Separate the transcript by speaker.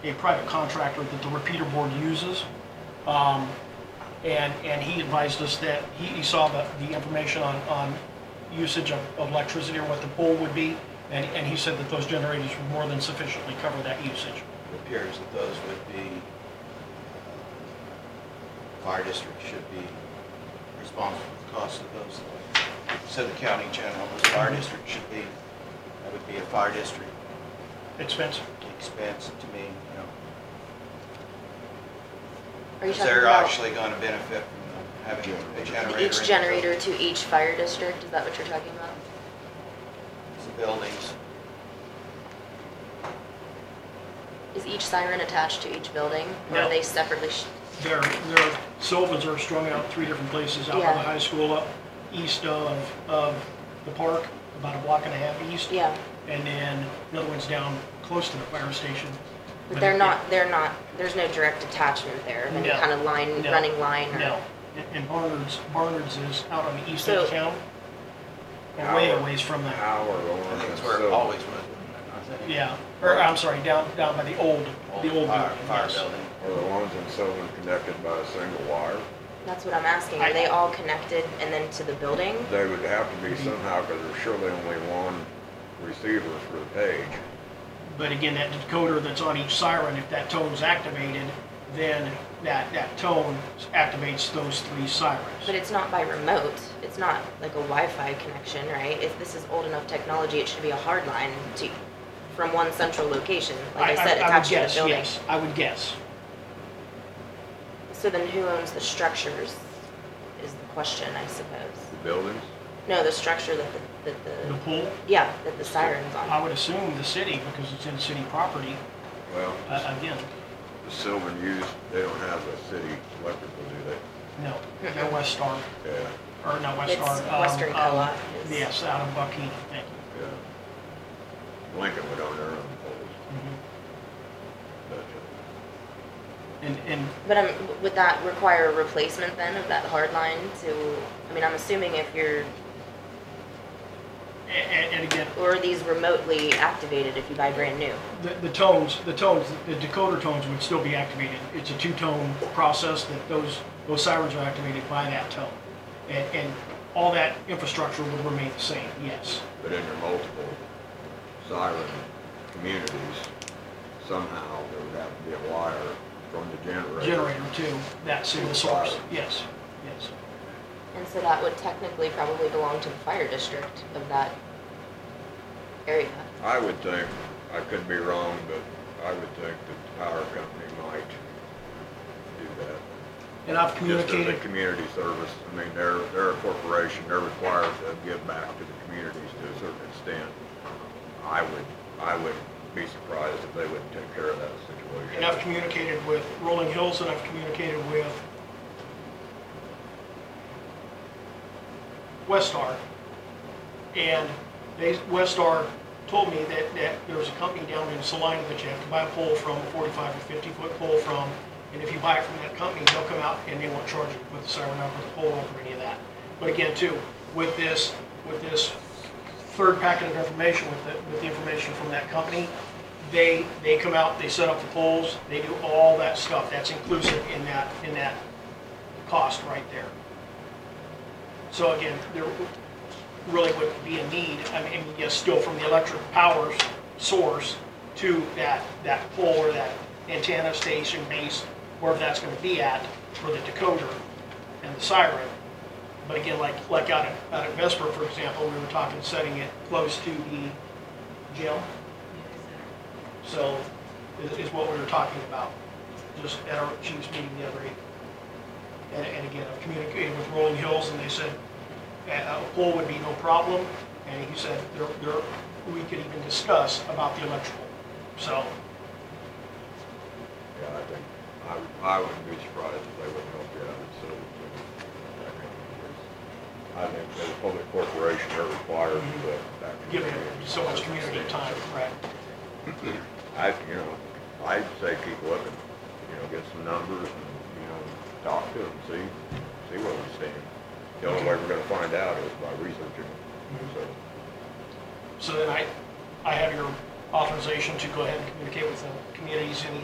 Speaker 1: a private contractor that the repeater board uses. Um, And, and he advised us that, he, he saw the, the information on, on usage of of electricity or what the pole would be, and, and he said that those generators would more than sufficiently cover that usage.
Speaker 2: It appears that those would be, uh, fire district should be responsible for the cost of those. So the county general, the fire district should be, that would be a fire district
Speaker 1: Expensive.
Speaker 2: expense to me, you know.
Speaker 3: Are you
Speaker 2: Because
Speaker 3: talking
Speaker 2: they're
Speaker 3: about
Speaker 2: actually going to benefit from having a generator. in
Speaker 3: each
Speaker 2: the
Speaker 3: generator to each fire district? Is that what you're talking about?
Speaker 2: buildings, the Buildings.
Speaker 3: Is each siren attached to each building? Or
Speaker 1: No.
Speaker 3: are they separately? sh-
Speaker 1: Their, their Sylvans are strung out three different places, out by
Speaker 3: Yeah.
Speaker 1: the high school, up east of, of the park, about a block and a half east.
Speaker 3: Yeah,
Speaker 1: And then another one's down close to the fire station.
Speaker 3: but they're not, they're not, there's no direct attachment there of any
Speaker 1: Mm-hmm. No.
Speaker 3: kind of line,
Speaker 1: No.
Speaker 3: running line or?
Speaker 1: No. And Barnard's, Barnard's is out on the east end of
Speaker 3: So-
Speaker 1: town. and Way
Speaker 4: Our-
Speaker 1: away from the,
Speaker 4: Our or.
Speaker 2: I think it's where it
Speaker 4: so-
Speaker 2: always was.
Speaker 1: yeah, or I'm sorry, down, down by the old, the old
Speaker 2: Fire,
Speaker 1: building.
Speaker 2: fire
Speaker 1: yes.
Speaker 2: building.
Speaker 4: Are the ones in Sylvan connected by a single wire?
Speaker 3: That's what I'm asking. Are they all connected and then to the building?
Speaker 4: They would have to
Speaker 2: Mm-hmm.
Speaker 4: be somehow, because there's surely only one receiver for the page.
Speaker 1: But again, that decoder that's on each siren, if that tone's activated, then that, that tone activates those three sirens.
Speaker 3: But it's not by remote. It's not like a Wi-Fi connection, right? If this is old enough technology, it should be a hard line to, from one central location, like I said,
Speaker 1: would
Speaker 3: attached to
Speaker 1: guess,
Speaker 3: the building.
Speaker 1: Yes, I would guess.
Speaker 3: So then who owns the structures is the question, I suppose.
Speaker 4: The buildings?
Speaker 3: No, the structure that the, that
Speaker 1: The
Speaker 3: the,
Speaker 1: pool,
Speaker 3: yeah, that the siren's
Speaker 1: I
Speaker 3: on.
Speaker 1: would assume the city, because it's in city property,
Speaker 4: Well,
Speaker 1: uh, again,
Speaker 4: the Sylvan use, they don't have a city electrical, do
Speaker 1: no, no West Star,
Speaker 4: they? Yeah,
Speaker 1: or not West
Speaker 3: It's
Speaker 1: Star. um,
Speaker 3: Western
Speaker 1: um,
Speaker 3: Co-op is-
Speaker 1: Yes, out of Buckingham, thank you.
Speaker 4: yeah. Lincoln would own their own poles.
Speaker 1: Mhm.
Speaker 4: but,
Speaker 1: And, and
Speaker 3: But um, would that require a replacement then of that hard line to, I mean, I'm assuming if you're,
Speaker 1: And, and again,
Speaker 3: or are these remotely activated if you buy brand new?
Speaker 1: the, the tones, the tones, the decoder tones would still be activated. It's a two-tone process that those, those sirens are activated by that tone. And, and all that infrastructure would remain the same, yes.
Speaker 4: uh, But in your multiple siren communities, somehow there would have to be a wire from the generator.
Speaker 1: Generator to that single source, yes, yes.
Speaker 3: And so that would technically probably belong to the fire district of that area.
Speaker 4: I would think, I could be wrong, but I would think that the power company might do that.
Speaker 1: And I've
Speaker 4: Just as a
Speaker 1: communicated,
Speaker 4: community service, I mean, they're, they're a corporation, they're required to give back to the communities to a certain extent. I would, I would be surprised if they wouldn't take care of that
Speaker 1: and I've
Speaker 4: situation.
Speaker 1: communicated with Rolling Hills, and I've communicated with Westar. And they, Westar told me that, that there's a company down in Salina that you have to buy a pole from, a 45 or 50 foot pole from, and if you buy it from that company, they'll come out and they won't charge you with the siren up or the pole up or any of that. But again, too, with this, with this third packet of information, with the, with the information from that company, they, they come out, they set up the poles, they do all that stuff, that's inclusive in that, in that cost right there. So again, there really wouldn't be a need, I mean, yes, still from the electric power source to that, that pole or that antenna station base, wherever that's gonna be at, for the decoder and the siren. But again, like, like out at, out at Vesper, for example, we were talking setting it close to the gym. So, is, is what we were talking about, just at our chief's meeting the other evening. And, and again, I've communicated with Rolling Hills, and they said, uh, a pole would be no problem, and he said, there, there, we could even discuss about the electrical. So,
Speaker 4: Yeah, I think, I, would- I wouldn't be surprised if they wouldn't help you out and so. that kind of thing. I think as a public corporation, they're required to back. to the
Speaker 1: giving
Speaker 4: community.
Speaker 1: so much community time, correct?
Speaker 4: I, you know, I'd say keep looking, you know, get some numbers and, you know, talk to them, see, see where we stand. The only way we're gonna find out is by researching, so.
Speaker 1: So then I, I have your authorization to go ahead and communicate with the communities in